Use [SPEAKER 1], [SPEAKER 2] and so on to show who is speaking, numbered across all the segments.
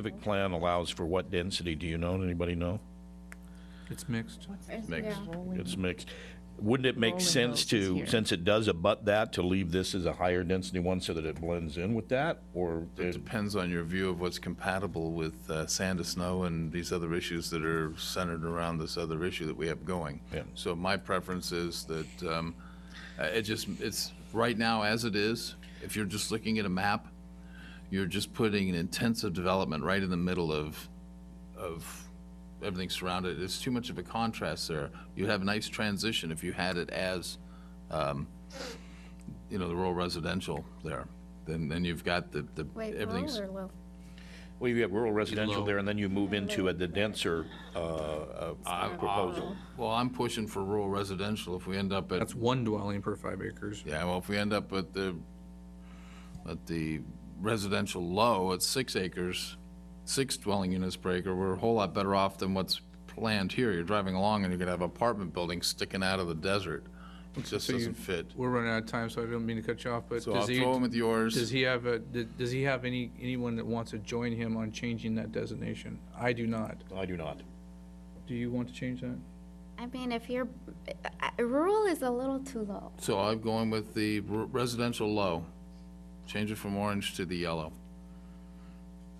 [SPEAKER 1] Civic plan allows for what density? Do you know? Anybody know?
[SPEAKER 2] It's mixed.
[SPEAKER 1] Mixed. It's mixed. Wouldn't it make sense to, since it does abut that, to leave this as a higher density one so that it blends in with that? Or,
[SPEAKER 3] It depends on your view of what's compatible with uh, sand to snow and these other issues that are centered around this other issue that we have going.
[SPEAKER 1] Yeah.
[SPEAKER 3] So my preference is that um, uh, it just, it's, right now as it is, if you're just looking at a map, you're just putting an intensive development right in the middle of, of everything surrounded. There's too much of a contrast there. You'd have a nice transition if you had it as um, you know, the rural residential there. Then, then you've got the, the,
[SPEAKER 4] Wait,
[SPEAKER 3] everything's.
[SPEAKER 4] rural or low?
[SPEAKER 1] well, you have rural residential
[SPEAKER 2] Low.
[SPEAKER 1] there and then you move into a- the denser, uh, uh, proposal.
[SPEAKER 3] Well, I'm pushing for rural residential if we end up at,
[SPEAKER 2] That's one dwelling per five acres.
[SPEAKER 3] yeah, well, if we end up at the, at the residential low at six acres, six dwelling units per acre, we're a whole lot better off than what's planned here. You're driving along and you're gonna have apartment buildings sticking out of the desert. It just doesn't fit.
[SPEAKER 2] We're running out of time, so I don't mean to cut you off, but
[SPEAKER 3] So I'll
[SPEAKER 2] does
[SPEAKER 3] throw them
[SPEAKER 2] he,
[SPEAKER 3] with yours.
[SPEAKER 2] does he have a, d- does he have any, anyone that wants to join him on changing that designation? I do not.
[SPEAKER 1] I do not.
[SPEAKER 2] Do you want to change that?
[SPEAKER 4] I mean, if you're, uh, rural is a little too low.
[SPEAKER 3] So I'm going with the r- residential low. Change it from orange to the yellow.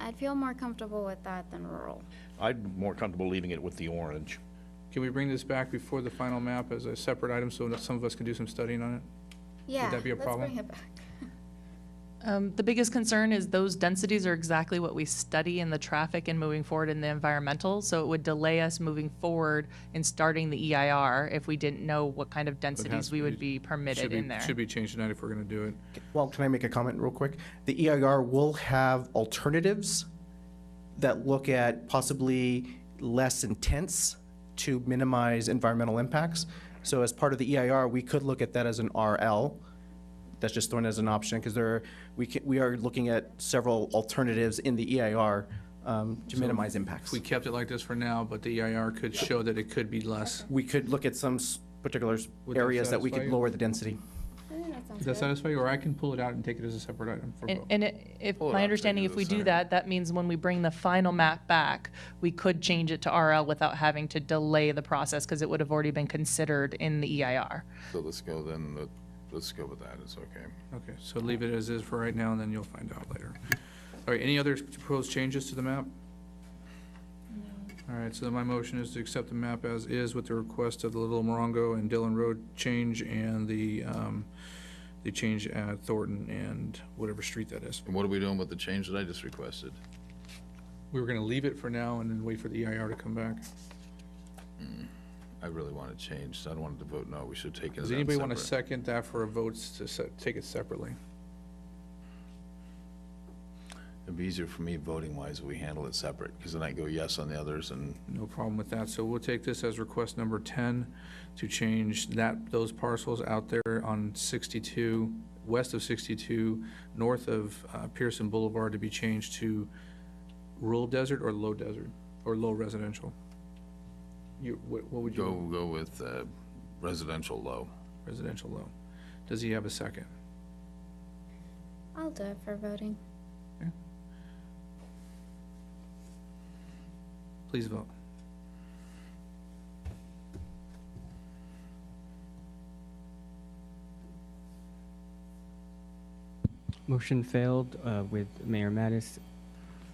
[SPEAKER 4] I'd feel more comfortable with that than rural.
[SPEAKER 1] I'm more comfortable leaving it with the orange.
[SPEAKER 2] Can we bring this back before the final map as a separate item so that some of us can do some studying on it?
[SPEAKER 4] Yeah,
[SPEAKER 2] that be a
[SPEAKER 4] let's
[SPEAKER 2] problem?
[SPEAKER 4] bring it back.
[SPEAKER 5] Um, The biggest concern is those densities are exactly what we study in the traffic and moving forward in the environmental. So it would delay us moving forward and starting the EIR if we didn't know what kind of densities we would be
[SPEAKER 2] Should
[SPEAKER 5] permitted
[SPEAKER 2] be-
[SPEAKER 5] in there.
[SPEAKER 2] Should be changed tonight if we're gonna do it.
[SPEAKER 6] Well, can I make a comment real quick? The EIR will have alternatives that look at possibly less intense to minimize environmental impacts. So as part of the EIR, we could look at that as an RL. That's just thrown as an option because there, are- we ca we are looking at several alternatives in the EIR um, to minimize impacts.
[SPEAKER 2] We kept it like this for now, but the EIR could show that it could be less.
[SPEAKER 6] We could look at some s- particular s-
[SPEAKER 2] Would that
[SPEAKER 6] areas that we could
[SPEAKER 2] satisfy you?
[SPEAKER 6] lower the density.
[SPEAKER 4] I think that sounds
[SPEAKER 2] Does that
[SPEAKER 4] good.
[SPEAKER 2] satisfy you? Or I can pull it out and take it as a separate item for
[SPEAKER 5] And-
[SPEAKER 2] vote.
[SPEAKER 5] And it- if,
[SPEAKER 3] it up,
[SPEAKER 5] my
[SPEAKER 3] take
[SPEAKER 5] understanding,
[SPEAKER 3] it
[SPEAKER 5] if
[SPEAKER 3] to
[SPEAKER 5] we
[SPEAKER 3] the
[SPEAKER 5] do
[SPEAKER 3] center.
[SPEAKER 5] that, that means when we bring the final map back, we could change it to RL without having to delay the process because it would have already been considered in the E EIR.
[SPEAKER 3] So let's go then, let- let's go with that, it's okay.
[SPEAKER 2] Okay, so leave it as is for right now, and then you'll find out later. All right, any other proposed changes to the map? All right, so then my motion is to accept the map as is with the request of the Little Morongo and Dillon Road change and the, um, the change at Thornton and whatever street that is.
[SPEAKER 3] And what are we doing with the change that I just requested?
[SPEAKER 2] We were gonna leave it for now and then wait for the EIR to come back.
[SPEAKER 3] I really want to change, so I don't want to vote no, we should take it
[SPEAKER 2] Does
[SPEAKER 3] out
[SPEAKER 2] anybody want to
[SPEAKER 3] separate.
[SPEAKER 2] second that for a vote to se- take it separately?
[SPEAKER 3] It'd be easier for me voting wise if we handle it separate, because then I go yes on the others and
[SPEAKER 2] No problem with that. So we'll take this as request number 10 to change that, those parcels out there on 62, west of 62, north of uh, Pearson Boulevard to be changed to rural desert or low desert, or low residential? You, what what would
[SPEAKER 3] go,
[SPEAKER 2] you,
[SPEAKER 3] go with uh, residential low.
[SPEAKER 2] residential low? Does he have a second?
[SPEAKER 4] I'll do it for voting.
[SPEAKER 2] Please vote.
[SPEAKER 7] Motion failed uh, with Mayor Mattis.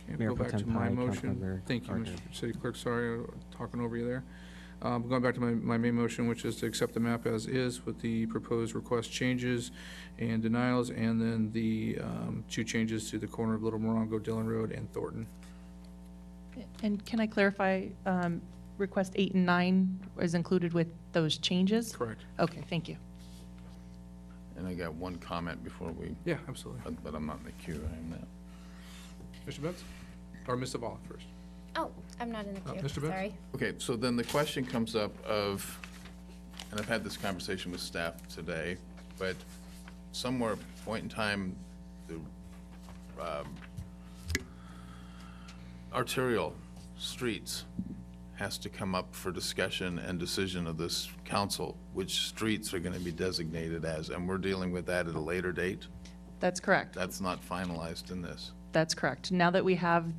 [SPEAKER 2] Okay,
[SPEAKER 7] Mayor
[SPEAKER 2] Go
[SPEAKER 7] Pro
[SPEAKER 2] back to
[SPEAKER 7] Tem
[SPEAKER 2] my
[SPEAKER 7] Pai,
[SPEAKER 2] motion.
[SPEAKER 7] Councilmember
[SPEAKER 2] Thank you,
[SPEAKER 7] Parker.
[SPEAKER 2] Mr. City Clerk, sorry, uh, talking over you there. Um, Going back to my, my main motion, which is to accept the map as is with the proposed request changes and denials, and then the um, two changes to the corner of Little Morongo, Dillon Road, and Thornton.
[SPEAKER 5] And can I clarify, um, request eight and nine is included with those changes?
[SPEAKER 2] Correct.
[SPEAKER 5] Okay, thank you.
[SPEAKER 3] And I got one comment before we,
[SPEAKER 2] Yeah, absolutely.
[SPEAKER 3] but but I'm not in the queue, I am now.
[SPEAKER 2] Mr. Betts? Or Ms. Zavala first?
[SPEAKER 4] Oh, I'm not in the
[SPEAKER 2] Uh,
[SPEAKER 4] queue,
[SPEAKER 2] Mr. Betts?
[SPEAKER 4] sorry.
[SPEAKER 3] Okay, so then the question comes up of, and I've had this conversation with staff today, but somewhere point in time, the um, arterial streets has to come up for discussion and decision of this council, which streets are going to be designated as, and we're dealing with that at a later date.
[SPEAKER 5] That's correct.
[SPEAKER 3] That's not finalized in this.
[SPEAKER 5] That's correct. Now that we have